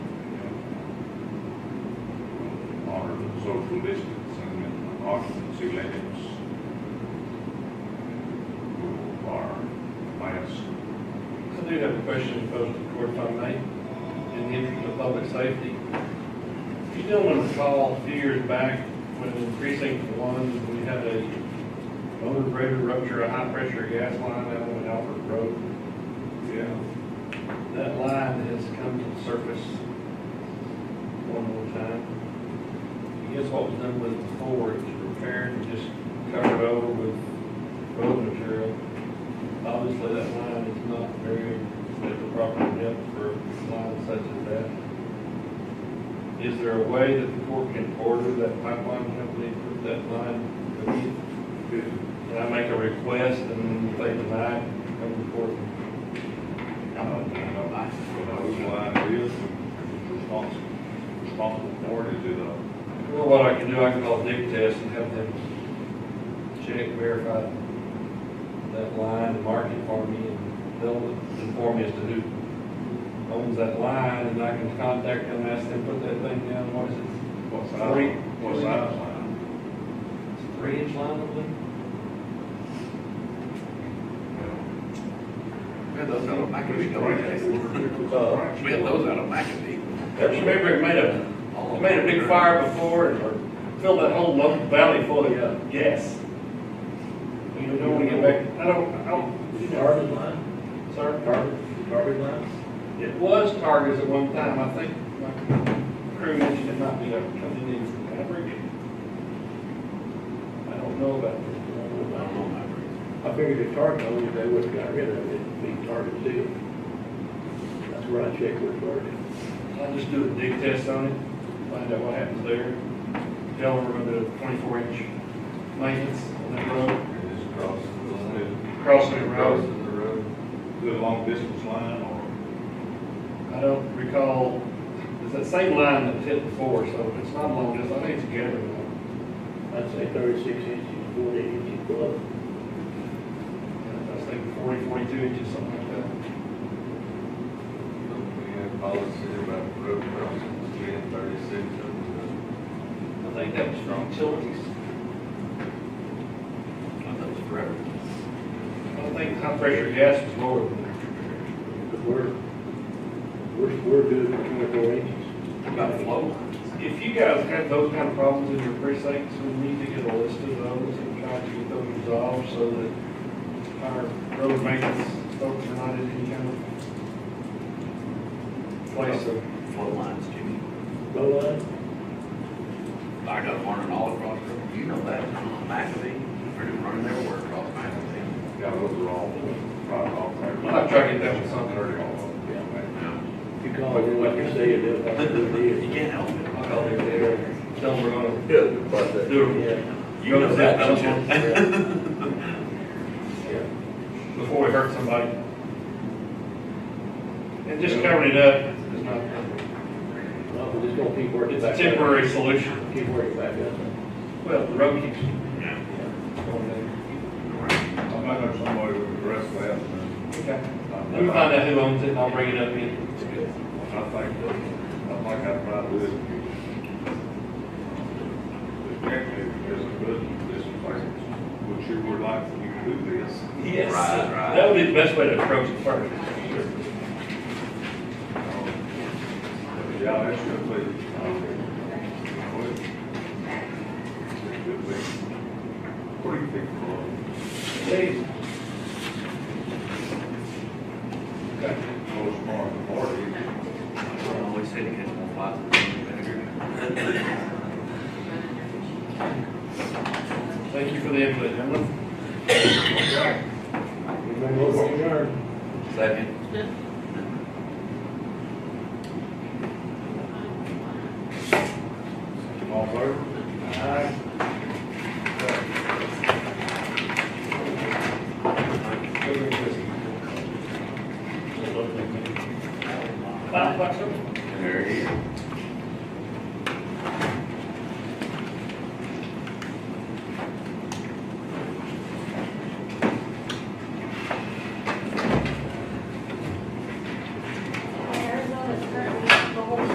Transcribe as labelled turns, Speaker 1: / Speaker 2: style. Speaker 1: social distance and occupancy limits are less.
Speaker 2: I do have a question posed to the court if I may, in the interest of public safety. You gentlemen recall a few years back when in precinct one, we had a motor grader rupture a high-pressure gas line down on Alfred Road.
Speaker 1: Yeah.
Speaker 2: That line has come to the surface one more time. I guess what was done with it before, it was repaired and just covered over with road material. Obviously, that line is not very, at the proper depth for lines such as that. Is there a way that the court can order that pipeline company to put that line? Can I make a request and if they deny, it, come to court?
Speaker 1: I don't know whose line it is, and responsible, responsible for it, is it a
Speaker 2: Well, what I can do, I can call Dick Test and have them check, verify that line, and mark it for me, and they'll inform me as to who owns that line, and I can contact them, ask them, put that thing down, what is it,
Speaker 1: What
Speaker 2: Three.
Speaker 1: size, what size line?
Speaker 2: it's a three inch line, I believe?
Speaker 3: We had those out of McAfee, don't we?
Speaker 2: Uh,
Speaker 3: We had those out of McAfee.
Speaker 2: remember it made a, it made a big fire before, and filled that whole low valley full of uh, gas. You don't wanna get back, I don't, I don't, you know,
Speaker 4: Garbage line,
Speaker 2: sir.
Speaker 4: garbage, garbage line?
Speaker 2: It was Target's at one time, I think my crew mentioned it might be a company in Maverick. I don't know about
Speaker 3: I
Speaker 2: this.
Speaker 3: don't know Maverick.
Speaker 4: I figured if Target owned it, they would have got rid of it, it'd be Target deal. That's where I checked with Target.
Speaker 2: I'll just do a dig test on it, find out what happens there. Tell them we're gonna do twenty-four inch maintenance on that road,
Speaker 1: It is across, is it
Speaker 2: crossing the road.
Speaker 1: the road? Is it a long distance line, or
Speaker 2: I don't recall, it's that same line that hit before, so it's not long, distance. I think it's a gathering line.
Speaker 4: I'd say thirty-six inches, forty inches below.
Speaker 2: I was thinking forty, forty-two inches, something like that.
Speaker 5: We have policy about road crossings, ten thirty-six, and,
Speaker 2: I think that was from utilities.
Speaker 3: I thought it was forever.
Speaker 2: I don't think high pressure gas was lower than that.
Speaker 4: But we're, we're, we're good for twenty-four inches.
Speaker 3: What about flow lines?
Speaker 2: If you guys have those kind of problems in your precincts, we need to get a list of those and try to get those resolved so that our road maintenance folks are not in any kind of place of,
Speaker 3: Flow lines, Jimmy.
Speaker 4: Low line,
Speaker 3: I got one in all across, the- you know that, McAfee, they're running everywhere across McAfee.
Speaker 1: yeah, those are all, right off there?
Speaker 2: I'm not trying to get that with something or
Speaker 1: All of them, yeah.
Speaker 4: you call it, like you say, it is, like it
Speaker 3: You
Speaker 4: is.
Speaker 3: can't help it.
Speaker 2: I'll call it there, tell them we're gonna
Speaker 5: Yeah, but that,
Speaker 2: do it
Speaker 4: Yeah,
Speaker 3: You know that, don't you?
Speaker 4: yeah.
Speaker 2: before we hurt somebody. And just covering it up is not,
Speaker 4: Well, we're just gonna keep working
Speaker 2: it's
Speaker 4: back
Speaker 2: a
Speaker 4: up.
Speaker 2: temporary solution.
Speaker 4: Keep working back up.
Speaker 2: Well, the road keeps
Speaker 3: Yeah.
Speaker 2: going there.
Speaker 1: I might know somebody would address that, and
Speaker 2: Okay.
Speaker 1: I-
Speaker 2: Let me find out who owns it, and I'll bring it up in.
Speaker 1: I think, that- I think I'd rather this. The objective is a good, this is like, what you would like, you could do this.
Speaker 2: Yes.
Speaker 3: Right, right.
Speaker 2: That would be the best way to approach it first.
Speaker 1: Yeah, that should be. It should be. What do you think, Carl?
Speaker 2: Please.
Speaker 1: Most part, party.
Speaker 3: I always said you had more flies than vinegar.
Speaker 2: Thank you for the input, gentlemen.
Speaker 4: You may move on your yard.
Speaker 3: Second.
Speaker 1: All vote?
Speaker 2: Five bucks, sir?
Speaker 3: There he is.